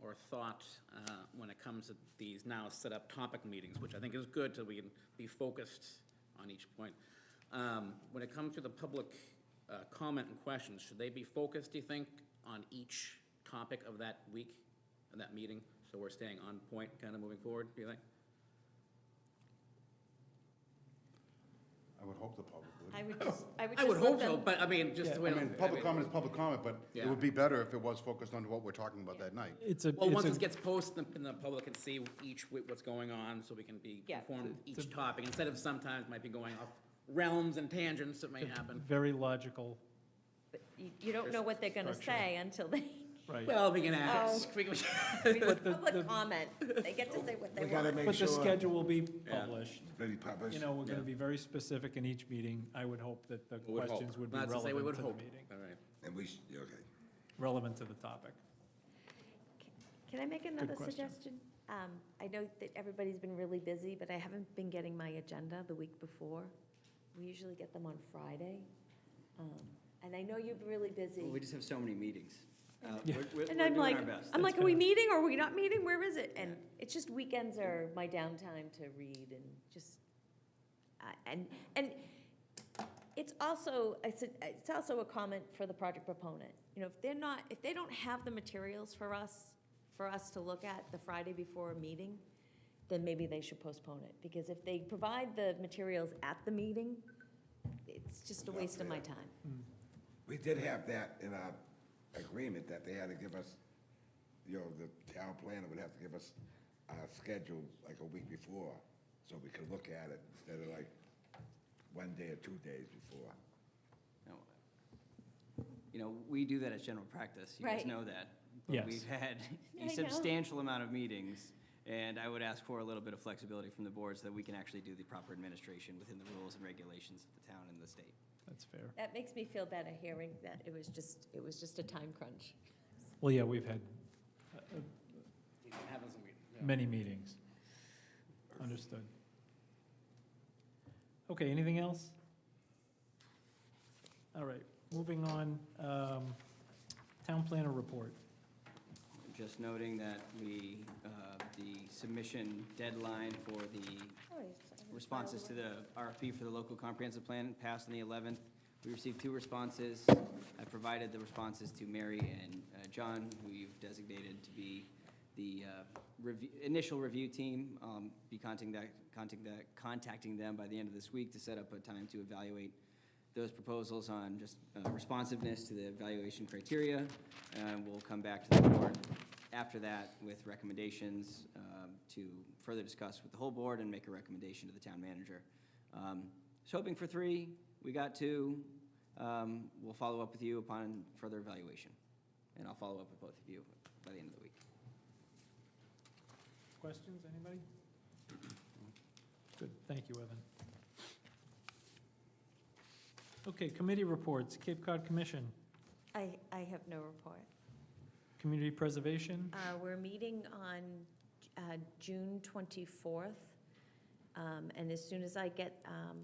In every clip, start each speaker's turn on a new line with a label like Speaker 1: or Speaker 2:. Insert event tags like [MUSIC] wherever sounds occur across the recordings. Speaker 1: more thought uh, when it comes to these now set-up topic meetings, which I think is good, so we can be focused on each point. Um, When it comes to the public uh, comment and questions, should they be focused, do you think, on each topic of that week, of that meeting? So we're staying on point, kind of moving forward, do you think?
Speaker 2: I would hope the public would.
Speaker 3: I would
Speaker 1: [LAUGHS]
Speaker 3: just, I would
Speaker 1: I
Speaker 3: just
Speaker 1: would
Speaker 3: let
Speaker 1: hope so,
Speaker 3: them.
Speaker 1: but I mean, just the way.
Speaker 2: I mean, public comment is public comment, but it
Speaker 1: Yeah.
Speaker 2: would be better if it was focused on what we're talking about that night.
Speaker 4: It's a,
Speaker 1: Well, once this
Speaker 4: it's a,
Speaker 1: gets posted, then- then the public can see each, wi- what's going on, so we can be
Speaker 3: Yeah.
Speaker 1: informed of each topic, instead of sometimes might be going off realms and tangents that may happen.
Speaker 4: very logical,
Speaker 3: You you don't know what they're going to say until
Speaker 1: [LAUGHS]
Speaker 3: they, [LAUGHS]
Speaker 4: right.
Speaker 1: Well, we can ask. We can-
Speaker 3: public comment. They get to say what they
Speaker 5: We gotta
Speaker 3: want.
Speaker 5: make
Speaker 4: But the
Speaker 5: sure,
Speaker 4: schedule will be published.
Speaker 5: maybe publish,
Speaker 4: You know, we're going to be very specific in each meeting. I would hope that the
Speaker 1: We [LAUGHS] would hope.
Speaker 4: questions would be
Speaker 1: Not to say we
Speaker 4: relevant
Speaker 1: would
Speaker 4: to the
Speaker 1: hope.
Speaker 4: meeting,
Speaker 1: All right.
Speaker 5: and we, sh- okay.
Speaker 4: relevant to the topic.
Speaker 3: Can I make another
Speaker 4: question.
Speaker 3: suggestion? Um, I know that everybody's been really busy, but I haven't been getting my agenda the week before. We usually get them on Friday. Um, And I know you're really
Speaker 6: Well, We
Speaker 3: busy.
Speaker 6: just have so many meetings. Uh,
Speaker 4: Yeah.
Speaker 6: we're- We're we're
Speaker 3: And I'm
Speaker 6: doing
Speaker 3: like,
Speaker 6: our best.
Speaker 3: I'm like, are we meeting or are we not meeting? Where is it? And it's just weekends are my downtime to read and just, I- and, and it's also, I said- it's also a comment for the project proponent. You know, if they're not, if they don't have the materials for us, for us to look at the Friday before a meeting, then maybe they should postpone it. Because if they provide the materials at the meeting, it's just a waste of my time.
Speaker 5: We did have that in our agreement, that they had to give us, you know, the town planner would have to give us our schedule like a week before, so we could look at it instead of like one day or two days before.
Speaker 6: No. You know, we do that as general practice. You guys
Speaker 3: Right.
Speaker 6: know that. But
Speaker 4: Yes.
Speaker 6: We've
Speaker 3: [LAUGHS]
Speaker 6: had
Speaker 3: I
Speaker 6: a
Speaker 3: know.
Speaker 6: substantial amount of meetings, and I would ask for a little bit of flexibility from the board so that we can actually do the proper administration within the rules and regulations of the town and the state.
Speaker 4: That's fair.
Speaker 3: That makes me feel better hearing that it was just, it was just a time crunch.
Speaker 4: Well, yeah, we've had
Speaker 1: We can have us a meeting, yeah.
Speaker 4: many meetings. Understood. Okay, anything else? All right, moving on, um, town planner report.
Speaker 6: Just noting that we, uh, the submission deadline for the responses to the RFP for the local comprehensive plan passed on the 11th. We received two responses. I provided the responses to Mary and uh, John, who you've designated to be the uh, review- initial review team. Um, Be contacting that, contacting that, contacting them by the end of this week to set up a time to evaluate those proposals on just uh, responsiveness to the evaluation criteria. And we'll come back to the board after that with recommendations um, to further discuss with the whole board and make a recommendation to the town manager. Um, So hoping for three, we got two. Um, We'll follow up with you upon further evaluation. And I'll follow up with both of you by the end of the week.
Speaker 4: Questions, anybody? Good, thank you, Evan. Okay, committee reports, Cape Cod Commission,
Speaker 3: I, I have no report.
Speaker 4: Community Preservation,
Speaker 3: Uh, We're meeting on uh, June 24th, um, and as soon as I get um,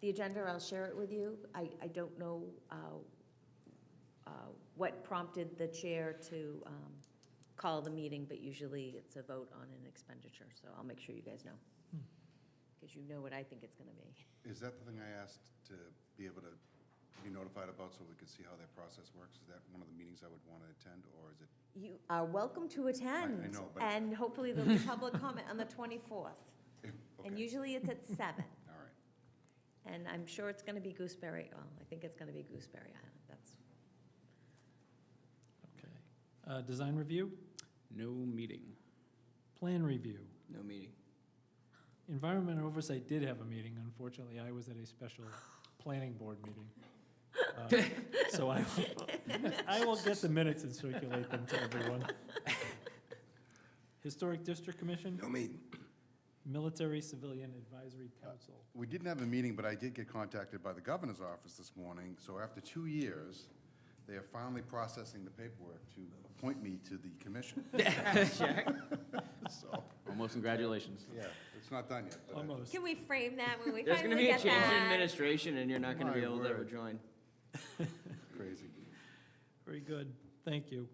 Speaker 3: the agenda, I'll share it with you. I, I don't know uh, uh, what prompted the chair to um, call the meeting, but usually it's a vote on an expenditure, so I'll make sure you guys know, because you know what I think it's going to be.
Speaker 2: Is that the thing I asked to be able to be notified about so we could see how that process works? Is that one of the meetings I would want to attend, or is it?
Speaker 3: You are welcome to attend.
Speaker 2: I know, but-
Speaker 3: And hopefully there'll be public comment on
Speaker 2: [LAUGHS]
Speaker 3: the 24th. And
Speaker 2: okay,
Speaker 3: usually it's at seven.
Speaker 2: All right.
Speaker 3: And I'm sure it's going to be Gooseberry, well, I think it's going to be Gooseberry Island, that's,
Speaker 4: okay. Uh, Design Review,
Speaker 1: No meeting.
Speaker 4: Plan Review.
Speaker 6: No [LAUGHS] meeting.
Speaker 4: Environment Oversight did have a meeting, unfortunately, I was at a special planning board meeting. Uh, So I, will- [LAUGHS] I will get the minutes and circulate them to everyone. Historic District Commission,
Speaker 5: No meeting.
Speaker 4: Military Civilian Advisory Council.
Speaker 2: We didn't have a meeting, but I did get contacted by the governor's office this morning. So after two years, they are finally processing the paperwork to appoint me to the commission. [LAUGHS] So,
Speaker 1: Almost congratulations.
Speaker 2: yeah, it's not done yet. but I-
Speaker 4: Almost.
Speaker 3: can we frame that when we
Speaker 6: There's going to
Speaker 3: finally
Speaker 6: be a
Speaker 3: get
Speaker 6: change in
Speaker 3: that?
Speaker 6: administration, and you're not going to be
Speaker 2: My
Speaker 6: able to ever
Speaker 2: word.
Speaker 6: join.
Speaker 2: Crazy.
Speaker 4: Very good, thank you.